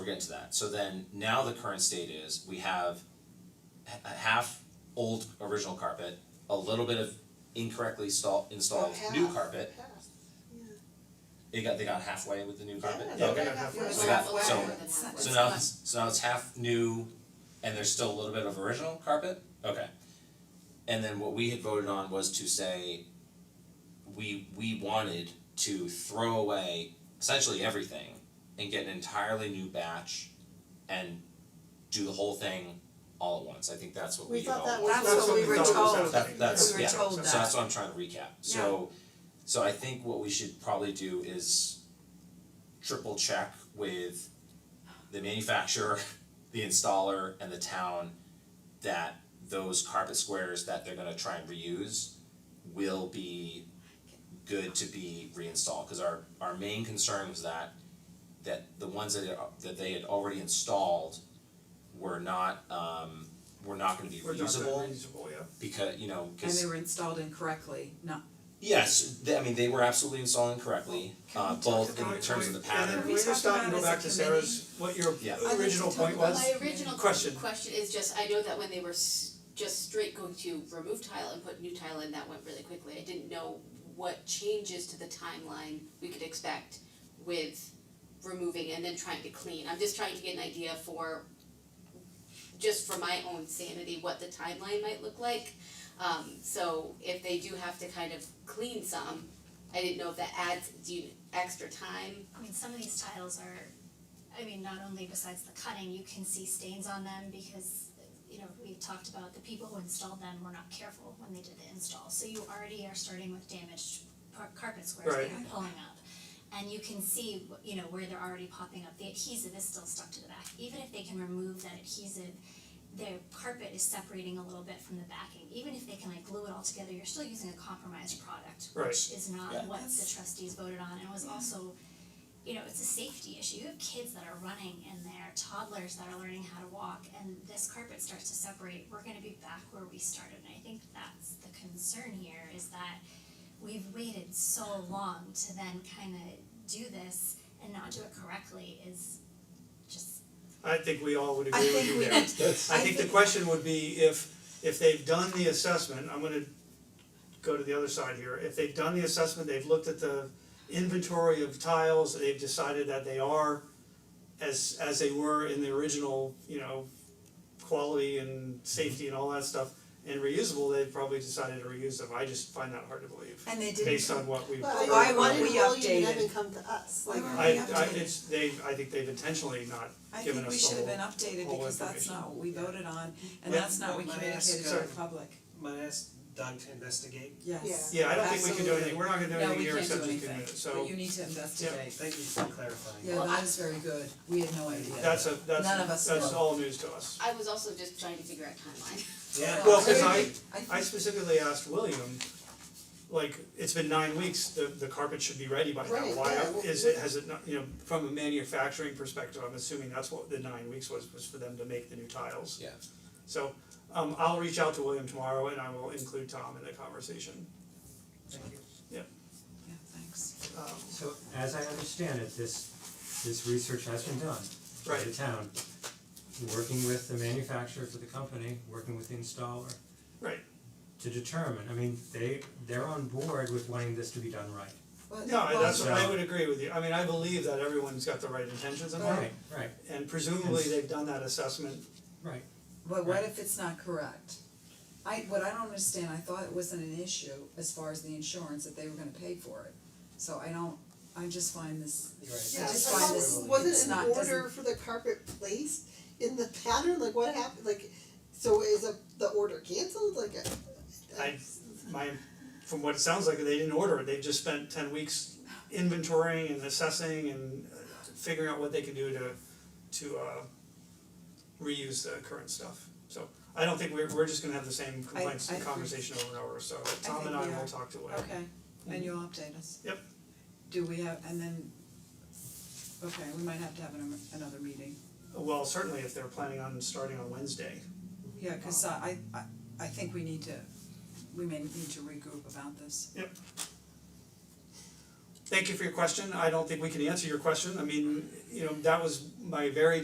We're getting to that. So then now the current state is we have h- a half old original carpet, a little bit of incorrectly install, installed Oh, new carpet. They got they got halfway with the new carpet. Yeah, Yeah, Okay. we're gonna have Yeah. So that- so- It's So not- now it's so now it's half new and there's still a little bit of original carpet? Okay. And then what we had voted on was to say we we wanted to throw away essentially everything and get an entirely new batch and do the whole thing all at once. I think that's what we We had all. thought that was That's what we what we were thought told. was That that's We were yeah, told so that. that's what I'm trying to recap, so so I think what we should probably do is triple check with the manufacturer, the installer and the town that those carpet squares that they're gonna try and reuse will be good to be reinstalled, cause our our main concern was that that the ones that are- that they had already installed were not um were not gonna be reusable We're not that reasonable, yeah. because you know And because they were installed incorrectly, not, yes they, I mean they were absolutely installing correctly Can uh we talk both Can we- in terms of the can we- pattern Can we We just talked stop and go about it as a back to Sarah's, what your Yeah. uh, original point was? My original Question. question is just, I know that when they were s- just straight going to remove tile and put new tile in, that went really quickly. I didn't know what changes to the timeline we could expect with removing and then trying to clean. I'm just trying to get an idea for, just for my own sanity, what the timeline might look like. Um, so if they do have to kind of clean some, I didn't know if that adds, do you, extra time? I mean, some of these tiles are, I mean, not only besides the cutting, you can see stains on them because, you know, we talked about the people who installed them were not careful when they did the install. So you already are starting with damaged par- carpet squares that Right. you're pulling up. And you can see, wh- you know, where they're already popping up. The adhesive is still stuck to the back. Even if they can remove that adhesive, their carpet is separating a little bit from the backing. Even if they can like glue it all together, you're still using a compromised product, Right. which is not Yeah. what the trustees voted on and was also, you know, it's a safety issue. You have kids that are running in there, toddlers that are learning how to walk, and this carpet starts to separate. We're gonna be back where we started, and I think that's the concern here is that we've waited so long to then kind of do this and not do it correctly is just I think we all would agree I with think you we, there. I I think the think- question would be if if they've done the assessment, I'm gonna go to the other side here, if they've done the assessment, they've looked at the inventory of tiles, they've decided that they are as as they were in the original, you know, quality and safety and all that stuff and reusable, they've probably decided to reuse them, I just find that hard to believe, and they didn't, based on what we've Well, Why I, weren't why we did William updated? even come to us? Like, Why I weren't we I updated? it's they, I think they've intentionally not I given think we us the should have been whole- updated whole because that's information. not what we voted on, and Yeah. that's not what we Let me ask, communicated to the uh, public, might I ask Doug to investigate. yes. Yeah, I don't think we can do anything, Absolutely. we're not gonna do No, anything we here can't except do just two anything, minutes, so. but you need to Okay, investigate. thank you for clarifying. Yeah, that is very good, we had no idea. That's a, None of that's, us that's know. all news to us. I was also just trying to figure out timeline. Yeah. Well, cause I, I I think specifically asked William, like, it's been nine weeks, the, the carpet should be ready by now, Right, why yeah, well- is it, has it not, you know, from a manufacturing perspective, I'm assuming that's what the nine weeks was, was for them to make the new tiles. Yeah. So, um, I'll reach out to William tomorrow and I will include Tom in the conversation, Thank you. Yeah, thanks. um, So as I understand it, this this research has been done by the Right. town. Working with the manufacturer for the company, working with the installer right, to determine, I mean, they they're on board with wanting this to be done right. Well, no, I- that's, Well- I would agree with you, I mean, I believe that everyone's got the right intentions in mind, Right, right, and presumably they've done that assessment right. But what if it's not correct? I, what I don't understand, I thought it wasn't an issue as far as the insurance, that they were gonna pay for it, so I don't, I just find this, You're right. I Yeah, I just thought find this this, wasn't it's an not, order doesn't, for the carpet placed in the pattern, like what happened, like, so is a, the order canceled, like? I- I, my, from what it sounds like, they didn't order it, they've just spent ten weeks inventorying and assessing and uh, figuring out what they can do to, to uh reuse the current stuff, so I don't think we're, we're just gonna have the same complaints I and agree. conversation over and over, so Tom think and I we will are. talk to uh, Wayne. okay, and you'll update us. Yep. Do we have, and then, okay, we might have to have an, another meeting, Well, certainly if they're planning on starting on Wednesday, yeah, cause I, I, I think we need to, we may need to regroup about this. thank you for your question, I don't think we can answer your question, I mean, you know, that was my very